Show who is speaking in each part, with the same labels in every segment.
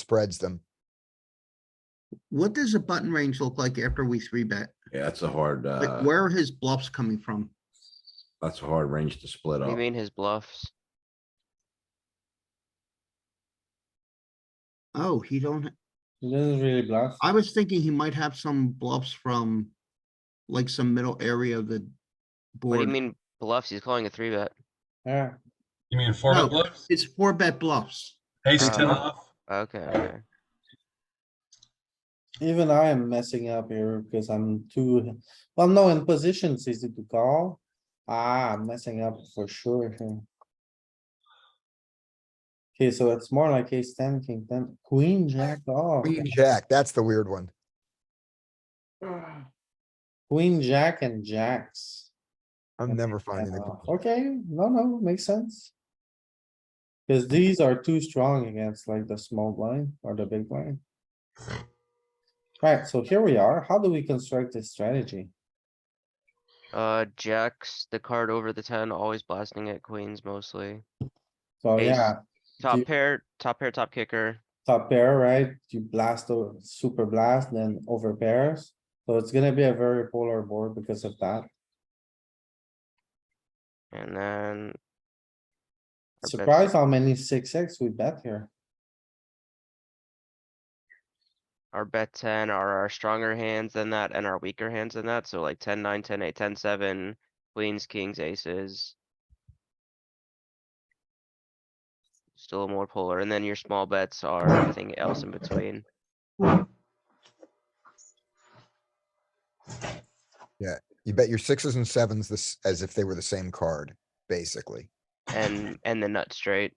Speaker 1: spreads them.
Speaker 2: What does a button range look like after we three bet?
Speaker 3: Yeah, that's a hard, uh,
Speaker 2: Like where are his bluffs coming from?
Speaker 3: that's a hard range to split
Speaker 4: You
Speaker 3: up.
Speaker 4: mean his bluffs?
Speaker 2: Oh, he don't,
Speaker 5: He doesn't really bluff.
Speaker 2: I was thinking he might have some bluffs from like some middle area of the
Speaker 4: What do you
Speaker 2: board.
Speaker 4: mean bluffs? He's calling a three bet.
Speaker 5: Yeah,
Speaker 6: You mean four
Speaker 2: No.
Speaker 6: bet bluffs?
Speaker 2: It's four bet bluffs.
Speaker 6: Ace
Speaker 4: Uh,
Speaker 6: ten off?
Speaker 4: Okay, okay.
Speaker 5: even I am messing up here because I'm too, well, no, in position it's easy to call. Ah, I'm messing up for sure here. Okay, so it's more like ace ten, king ten, queen, jack off,
Speaker 1: Queen jack, that's the weird one.
Speaker 5: queen, jack and jacks.
Speaker 1: I'm
Speaker 5: Okay,
Speaker 1: never
Speaker 5: Yeah,
Speaker 1: finding it.
Speaker 5: Okay, no, no, makes sense. Cause these are too strong against like the small blind or the big blind. Right, so here we are. How do we construct this strategy?
Speaker 4: Uh, jacks, the card over the ten, always blasting at queens mostly.
Speaker 5: So
Speaker 4: Ace.
Speaker 5: yeah,
Speaker 4: Top
Speaker 5: you-
Speaker 4: pair, top pair, top kicker.
Speaker 5: top pair, right? You blast the super blast, then over pairs. So it's gonna be a very polar board because of that.
Speaker 4: And then. our bets-
Speaker 5: Surprised how many six X we bet here.
Speaker 4: Our bet ten are our stronger hands than that and our weaker hands than that, so like ten, nine, ten, eight, ten, seven, queens, kings, aces. Still more polar, and then your small bets are everything else in between.
Speaker 1: You bet your sixes and sevens this as if they were the same card, basically.
Speaker 4: And, and the nut straight.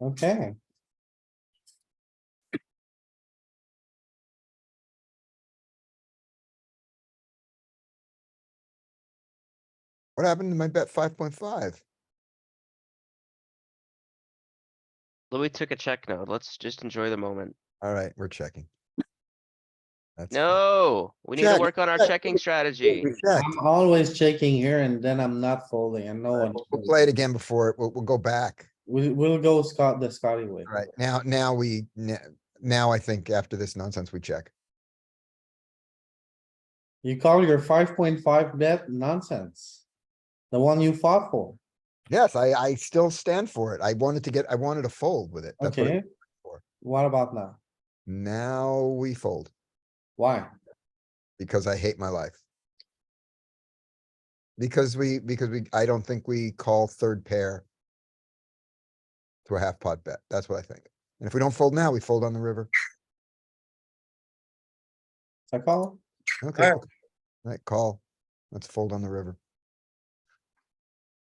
Speaker 5: Okay.
Speaker 1: What happened to my bet five point five?
Speaker 4: Louis took a check note. Let's just enjoy the moment.
Speaker 1: Alright, we're checking. That's fine.
Speaker 4: No, we need to
Speaker 1: Check,
Speaker 4: work on our
Speaker 1: check,
Speaker 4: checking
Speaker 1: check,
Speaker 4: strategy.
Speaker 1: We checked.
Speaker 5: I'm always checking here and then I'm not folding and no
Speaker 1: Alright,
Speaker 5: one.
Speaker 1: We'll we'll play it again before, it- we'll, we'll go back.
Speaker 5: We, we'll go Scott, the Scotty way.
Speaker 1: Alright, now, now we, n- now I think after this nonsense, we check.
Speaker 5: You call your five point five bet nonsense. The one you fought for,
Speaker 1: Yes, I, I still stand for it. I wanted to get, I wanted to fold with it. That's what
Speaker 5: okay?
Speaker 1: it- for.
Speaker 5: What about now?
Speaker 1: Now we fold
Speaker 5: Why?
Speaker 1: because I hate my life. Because we, because we, I don't think we call third pair to a half pot bet. That's what I think. And if we don't fold now, we fold on the river.
Speaker 5: It's a call?
Speaker 1: Okay.
Speaker 6: Alright.
Speaker 1: Alright, call. Let's fold on the river.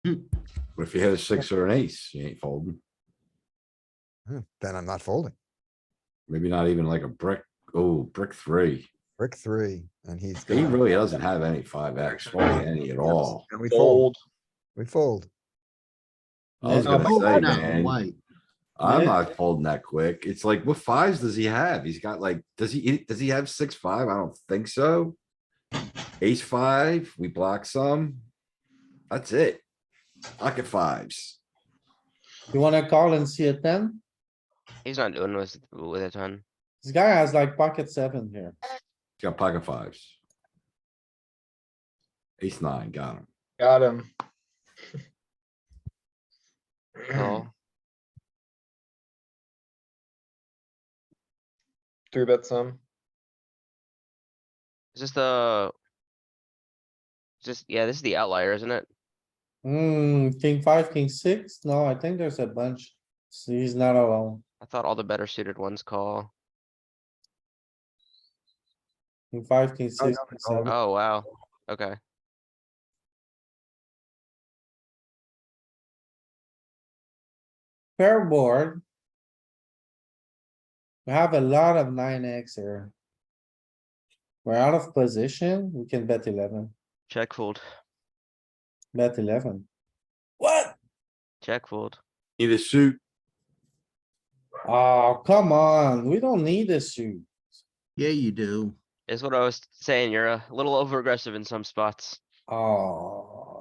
Speaker 3: But if you hit a six or an ace, you ain't folding.
Speaker 1: Hmm, Then I'm not folding.
Speaker 3: Maybe not even like a brick. Oh, brick three.
Speaker 1: Brick three and he's.
Speaker 3: He
Speaker 1: gonna-
Speaker 3: really doesn't have any five X, any at all.
Speaker 1: And we fold. We fold.
Speaker 3: I was
Speaker 5: Yeah.
Speaker 3: gonna say,
Speaker 2: Oh, No,
Speaker 3: man,
Speaker 2: why?
Speaker 3: I'm
Speaker 5: Yeah.
Speaker 3: not folding that quick. It's like, what fives does he have? He's got like, does he, does he have six, five? I don't think so. Ace five, we block some. That's it. Pocket fives.
Speaker 5: You wanna call and see a ten?
Speaker 4: He's not doing with, with a ton.
Speaker 5: This guy has like pocket seven here.
Speaker 3: He's got pocket fives. Ace nine, got him.
Speaker 6: Got him.
Speaker 4: Call.
Speaker 6: Three bet some.
Speaker 4: Is this the? is this yeah, this is the outlier, isn't it?
Speaker 5: Hmm, king five, king six? No, I think there's a bunch. So he's not alone.
Speaker 4: I thought all the better suited ones call.
Speaker 5: King five, king
Speaker 1: Oh,
Speaker 5: six,
Speaker 1: no, no,
Speaker 5: king seven.
Speaker 4: Oh, wow. Okay.
Speaker 5: Pair board. We have a lot of nine X here. We're out of position. We can bet eleven,
Speaker 4: Check fold.
Speaker 5: bet eleven. What?
Speaker 4: Check fold.
Speaker 3: Need a suit.
Speaker 5: Oh, come on. We don't need a suit.
Speaker 2: Yeah, you do.
Speaker 4: Is what I was saying. You're a little over aggressive in some spots.
Speaker 5: Oh,